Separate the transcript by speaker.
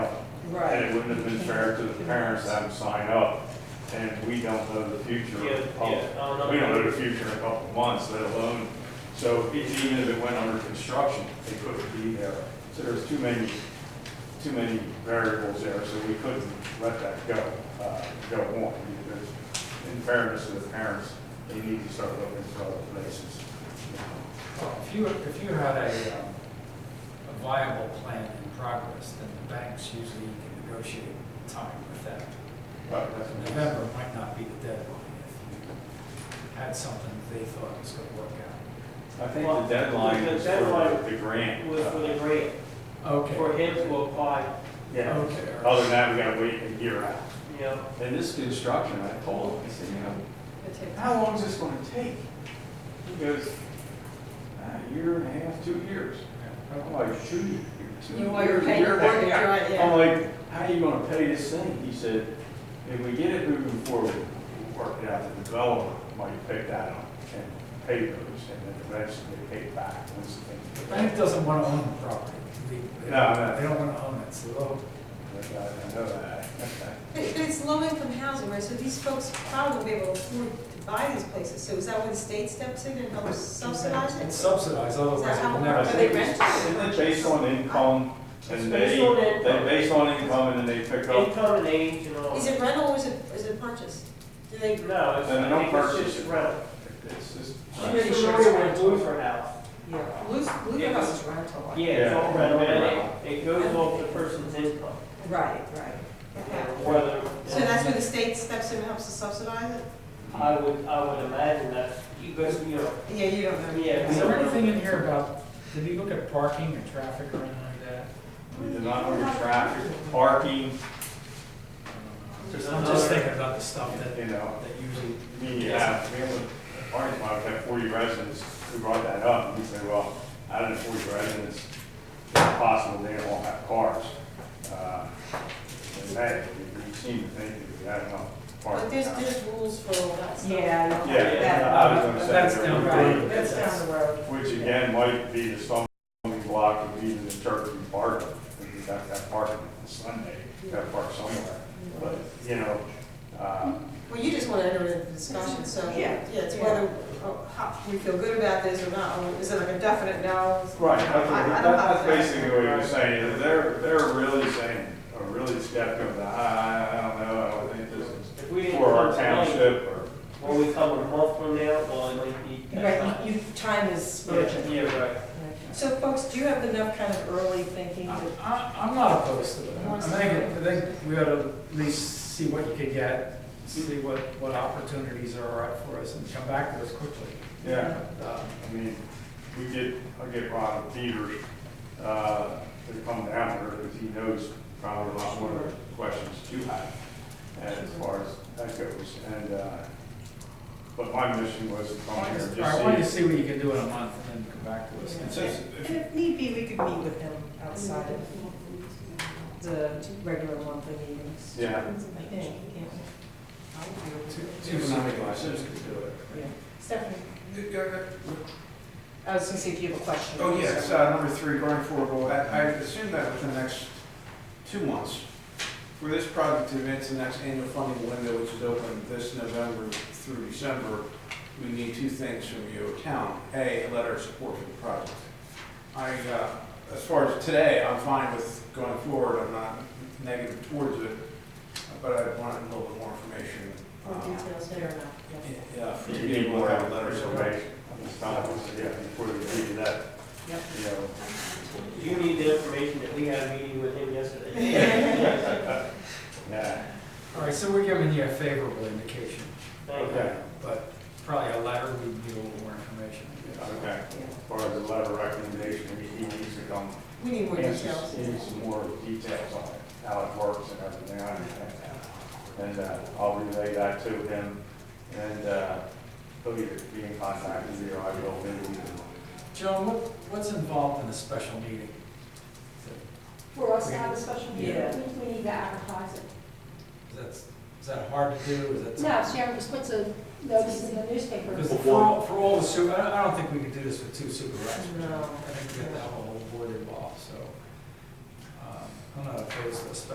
Speaker 1: it wouldn't have been fair to the parents to have them sign up, and we don't know the future.
Speaker 2: Yeah,
Speaker 1: of-
Speaker 2: yeah, I don't know.
Speaker 1: We don't know the future in a couple of months, let alone, so e- even if it went under construction, it couldn't be there. So there's too many, too many variables there, so we couldn't let that go, uh, go on. Because in fairness to the parents, they need to start looking for other places. you know.
Speaker 3: Well, If you, if you had a, um, a viable plan in progress, then the banks usually can negotiate time with that.
Speaker 1: But that's.
Speaker 3: November might not be the deadline if you had something they thought was gonna work out.
Speaker 1: I think
Speaker 2: Well,
Speaker 1: the deadline
Speaker 2: the
Speaker 1: is
Speaker 2: deadline
Speaker 1: for the grant.
Speaker 2: was for the grant, for
Speaker 3: Okay,
Speaker 2: him to apply,
Speaker 1: Yeah.
Speaker 3: okay.
Speaker 1: Other than that, we gotta wait a year out.
Speaker 2: you know,
Speaker 1: And this construction, I told him, I said, you know,
Speaker 4: It takes-
Speaker 1: how long is this gonna take? He goes, a year and a half, two years. I'm like, shoot, you're two
Speaker 4: You want your
Speaker 1: years, a
Speaker 4: pay
Speaker 1: year and a
Speaker 4: mortgage,
Speaker 1: half."
Speaker 4: right, yeah.
Speaker 1: I'm like, how are you gonna pay this thing? He said, if we get it moving forward, we'll work it out, the developer might pick that up and pay those, and then eventually they pay it back once the
Speaker 3: The
Speaker 1: thing.
Speaker 3: bank doesn't wanna own the property. They- they-
Speaker 1: No, no.
Speaker 3: They don't wanna own it, so they'll,
Speaker 1: But I know that.
Speaker 4: It- It's low-income housing, right, so these folks probably won't be able to afford to buy these places, so is that when the state steps in and helps subsidize
Speaker 3: it's
Speaker 4: it?
Speaker 3: subsidized, otherwise it
Speaker 4: how-
Speaker 3: will
Speaker 4: Are
Speaker 3: never.
Speaker 4: they renting?
Speaker 1: Isn't it based on income?
Speaker 2: It's
Speaker 1: And
Speaker 2: based
Speaker 1: they,
Speaker 2: on
Speaker 1: they
Speaker 2: income.
Speaker 1: based on income and then they pick up,
Speaker 2: income and age and all.
Speaker 4: Is it rental or is it, is it purchase? Do they,
Speaker 2: No, it's,
Speaker 1: And they don't
Speaker 2: I think it's
Speaker 1: purchase
Speaker 2: just
Speaker 1: it.
Speaker 2: rental.
Speaker 1: it's just.
Speaker 2: She's familiar with Bluefer House.
Speaker 5: Yeah, Blue, Blue House is rental.
Speaker 2: Yeah, it's all
Speaker 1: Yeah.
Speaker 2: rental, and it, it goes off the person's income,
Speaker 5: Right, right.
Speaker 2: you know,
Speaker 4: okay.
Speaker 2: whether.
Speaker 4: so that's where the state steps in and helps to subsidize it?
Speaker 2: I would, I would imagine that, you guys, you know,
Speaker 4: Yeah, you don't know.
Speaker 2: Yeah,
Speaker 3: Is there anything in here about, did you look at parking or traffic or anything like that?
Speaker 1: We did not order traffic, parking,
Speaker 3: I'm just thinking about the stuff that,
Speaker 1: you know,
Speaker 3: that usually
Speaker 1: I mean, you have, we have a parking lot, we have forty residents, we brought that up, and we said, well, out of the forty residents, it's possible they all have cars. Uh, And hey, we- we seem to think that we have enough
Speaker 4: But
Speaker 1: parking.
Speaker 4: there's,
Speaker 1: now.
Speaker 4: there's rules for all that stuff.
Speaker 5: Yeah.
Speaker 1: Yeah, I was gonna say.
Speaker 3: That's
Speaker 1: there
Speaker 3: down
Speaker 1: would
Speaker 3: the
Speaker 1: be-
Speaker 3: road.
Speaker 5: Right, that's down the road.
Speaker 1: Which again might be the stumbling block of even the turkey park, if you got that park on Sunday, you got to park somewhere. But, you know, uh,
Speaker 4: Well, you just want to enter into the discussion, so,
Speaker 5: Yeah.
Speaker 4: yeah, it's whether, oh, how, we feel good about this or not, or is it like a definite no?
Speaker 1: right,
Speaker 4: I- I don't
Speaker 1: that's,
Speaker 4: have
Speaker 1: that's
Speaker 4: a-
Speaker 1: basically what you're saying, is they're, they're really saying, or really skeptical, that, I, I don't know, I don't think this is
Speaker 2: if we didn't.
Speaker 1: for our
Speaker 2: come tonight,
Speaker 1: township or.
Speaker 2: When we come a month from now, well, it might be.
Speaker 5: Right, you, you- time is
Speaker 2: Yeah,
Speaker 5: urgent.
Speaker 2: yeah, right.
Speaker 5: So folks, do you have enough kind of early thinking
Speaker 3: I,
Speaker 5: to?
Speaker 3: I- I'm not opposed to it. I think, I think we ought to at least see what you could get, see what, what opportunities are out for us and come back to us quickly.
Speaker 1: Yeah.
Speaker 3: Um,
Speaker 1: I mean, we get, I get Ron Peters, uh, to come down here, because he knows probably a lot more of the questions you have, and as far as that goes, and, uh, but my mission was to come here and
Speaker 3: I want you to
Speaker 1: just see.
Speaker 3: see what you can do in a month and then come back to us.
Speaker 1: It's just-
Speaker 5: And if need be, we could meet with him outside of the regular monthly meetings.
Speaker 1: Yeah.
Speaker 5: I think, yeah.
Speaker 3: Two-
Speaker 1: Two
Speaker 3: two-
Speaker 1: Sunday classes could do it.
Speaker 5: Yeah. Stephanie,
Speaker 6: Oh,
Speaker 5: I was gonna see if you have a question.
Speaker 1: Oh,
Speaker 6: yes, uh, number three, going forward, I I assume that within the next two months, for this project to advance the next annual funding window, which is open this November through December, we need two things from your town. A, a letter of support for the project. I, uh, as far as today, I'm fine with going forward, I'm not negative towards it, but I want a little bit more information.
Speaker 4: More
Speaker 6: um,
Speaker 4: details
Speaker 5: Fair
Speaker 4: there.
Speaker 5: enough, yeah.
Speaker 6: Yeah, for
Speaker 1: You
Speaker 6: you to
Speaker 1: need more
Speaker 6: have a letter of support.
Speaker 1: information, it's not, yeah, before we do that,
Speaker 5: Yep.
Speaker 1: you know.
Speaker 2: You need the information that we had a meeting with him yesterday.
Speaker 1: Yeah,
Speaker 3: All right, so we're giving you a favorable indication,
Speaker 2: Thank you.
Speaker 1: okay,
Speaker 3: but probably a letter, we need a little more information. I guess.
Speaker 1: okay. As far as the letter of recommendation, he needs to come
Speaker 4: We need more
Speaker 1: Yes,
Speaker 4: details.
Speaker 1: Need some more details on it, how it works and everything, I understand that. And uh, I'll relay that to him, and uh, he'll either be in contact with you, or I will, maybe we can
Speaker 3: Joan, what, what's involved in a special meeting?
Speaker 7: For us to have a special
Speaker 5: Yeah.
Speaker 7: meeting, we need to advertise it.
Speaker 3: Is that, is that hard to do? Is that?
Speaker 7: No, Sharon just puts a notice in the newspaper.
Speaker 3: Because for all, for all the super, I don't, I don't think we could do this with two supervisors.
Speaker 5: No.
Speaker 3: I think we have to have a whole board involved, so, um, I'm not opposed to this,